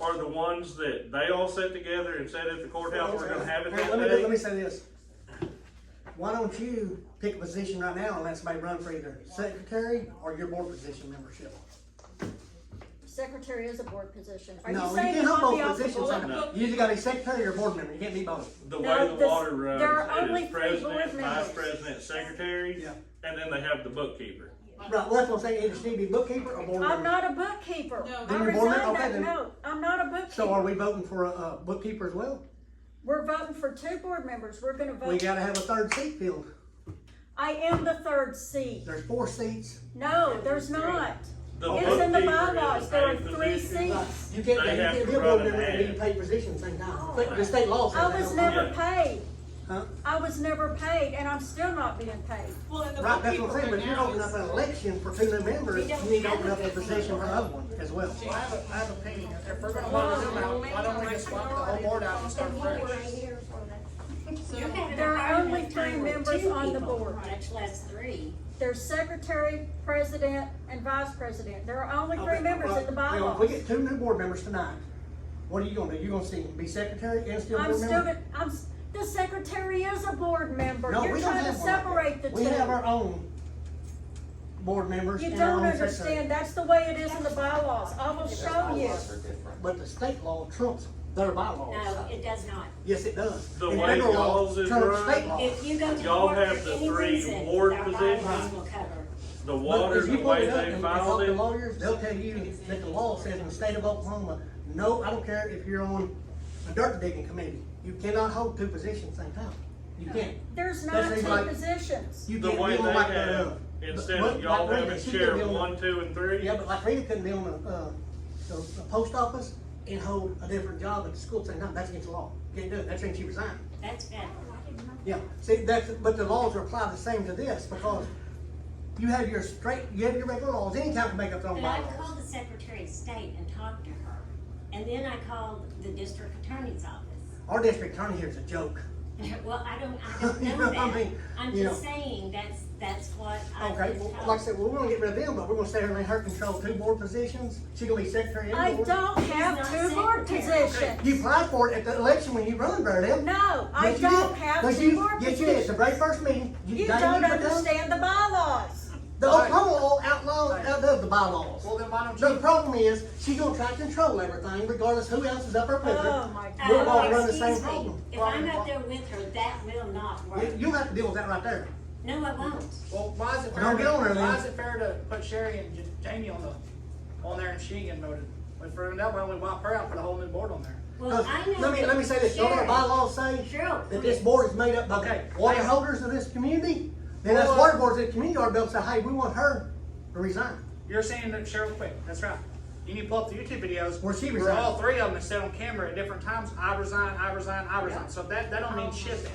are the ones that they all set together and said at the courthouse, we're gonna have it Hey, that let me, let me day. say this. Why don't you pick a position right now and let somebody run for either secretary or your board position membership? Secretary is a board position. Are No, you you saying can't you have want to be both off the positions. board? You either gotta be secretary or board member, you can't be both. The No, way the this- water runs, there are it only is three board president, vice members. president, secretary, Yeah. and then they have the bookkeeper. Right, well, that's what I'm saying, either she be bookkeeper or board member. I'm not a bookkeeper. No. I Then you're board member? resigned Okay, that then. note. I'm not a So are bookkeeper. we voting for a, a bookkeeper as well? We're voting for two board members. We're gonna We vote. gotta have a third seat filled. I am the third seat. There's four seats. No, there's not. The It's in the bookkeeper is a bylaws. There are paid three position. seats. You can't, you They have can't to be a run board an member and ad. be paid position at the same time. But The state law says Oh. I that. was never paid. Huh? I was never paid and I'm still not being paid. Well, and the Right, that's bookkeeper what I'm saying, but right if you're now opening up is. an election for two new members, you need to open up a position for another one as well. I have a, I have a opinion, if we're gonna let them out, why don't we just wipe the whole board out and start fresh? There are only three members on the board. Much less three. There's secretary, president, and vice president. There are only three members in the Well, If we bylaws. get two new board members tonight, what are you gonna do? You gonna see, be secretary and still I'm board still, member? gonna- I'm, s- the secretary is a board member. No, You're we don't trying to have one like that. separate the two. We have our own board members You and our don't own secretary. understand. That's the way it is in the bylaws. I will show you. But the state law trumps their No, bylaws. it does not. Yes, it does. The And way federal law y'all's is trumps run, state law. If you go to Y'all court have for the any three reason, ward our positions. bylaws will cover. The But water, if you the pull way it up they and talk filed to it, lawyers, they'll tell you that the law says in the state of Oklahoma, no, I don't care if you're on a dirt digging committee, you cannot hold two positions at the same time. You can't. There's That not seems two like- positions. You the can't way be they on like the, have, uh. instead but- of y'all like Rita, having she could be sheriff on the- one, two, and three. Yeah, but like Rita couldn't be on the, uh, the, the post office and hold a different job at the school at the same time, that's against the law. Can't do it, that's when she resigned. That's bad. Yeah, see, that's, but the laws are applied the same to this, because you have your straight, you have your regular laws, any town can make up their own But I bylaws. called the Secretary of State and talked to her. And then I called the district attorney's office. Our district attorney here is a joke. Well, I don't, I don't You know know, I that. mean, I'm you just know. saying that's, that's what I've Okay, been well, told. like I said, well, we're gonna get rid of them, but we're gonna stay her in her control, two board positions, she gonna be secretary I and board. don't have She's not two board secretary. You positions. applied for it at the election when you run, Bernadette. No, I Yes, you did. don't have Yes, two you- board Yes, you did, the positions. very first meeting. You now don't need to go- understand the bylaws. The Oklahoma law outlaws, outdoes the bylaws. Well, then why don't The you, problem is, she gonna try to control everything regardless who else is up her Oh, picture. my Oh, We'll all God. run the same excuse me. problem. If I'm up there with her, that will not work. You- You'll have to deal with that right there. No, it won't. well, why is Well, it fair, don't get on her to- why then. is it fair to put Sherry and J- Jamie on the, on there and she and voted? But for that way, only wipe her out, put a whole new board on there. Well, I know. Uh, Let me, that let me say this, don't our Sherry- bylaws say Cheryl, that this please. board is made up by Okay. the water holders of this community? Then us Well- water boards of the community are able to say, hey, we want her to resign. You're saying that Cheryl quit, that's right. You need to pull up the YouTube videos. Where she Where all resigned. three of them is said on camera at different times, I resign, I resign, I resign. So that, that don't mean shit then.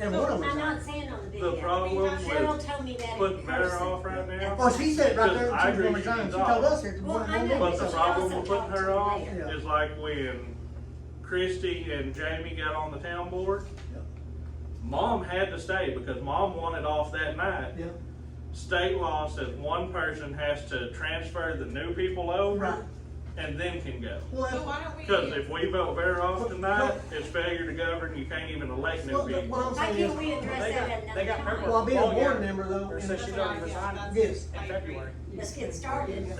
And one of them I'm resigned. not saying on the video. problem with Cheryl told me that in putting Vera off person. right now. Well, she said right there, Because I that she was agree gonna she resign, she resigned. told us here. she Well, wasn't I gonna know do it. But the problem with putting her off Yeah. is like when Christy and Jamie got on the town board, Yeah. mom had to stay because mom wanted off that night. Yeah, State law says one person has to transfer the new people over Right. and then can go. So well, why don't we? Cause if we vote Vera off tonight, it's failure to govern, you can't even elect new well, the- what I'm people. Why saying is, can't we address They that got- at they another got time? paperwork. well, being a Well, board yeah. member though, Or and says that's she's not, already resigned in yes, I agree. February. Let's get started.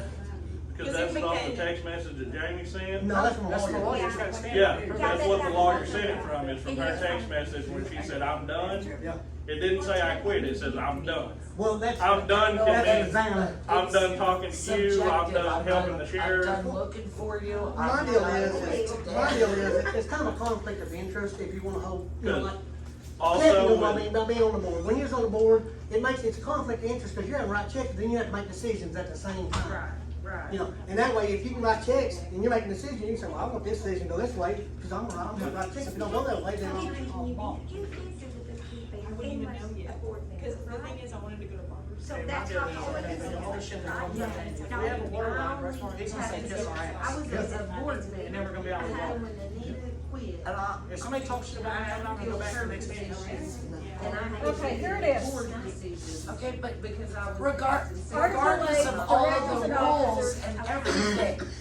Cause that's not the text message that Jamie sent. no, that's from a That's the lawyer. lawyer, has gotta stand. Yeah, for that. that's what the lawyer sent it from, is from her text message when she said, I'm done. Yeah, It didn't say I quit, it says I'm done. well, that's. I'm done That's convinced. resign. I'm done talking to you, I'm done helping the sheriff. I'm done looking for you. My deal is, my deal is, it's kind of a conflict of interest if you wanna hold, you know, Good. like, Cliff knows Also, what I mean with- by being on the board. When you're on the board, it makes, it's a conflict of interest, because you're having to write checks, then you have to make decisions at the same time. Right. You know, and that way, if you can write checks, and you're making a decision, you can say, well, I want this decision to go this way, because I'm, I'm gonna write checks, if it don't go that way, then I'll. I wouldn't even know yet, cause the thing is, I wanted to go to Barbers. So that's not the only thing. We have a water line, that's why he's gonna say kiss our I ass. was a board You're member. never gonna be out of the water. And I, If somebody talks shit about me, I'm not gonna go back to the next meeting. Okay, here it is. Okay, but because I was. regard, Article regardless eight, of all directors the and rules officers. and everything,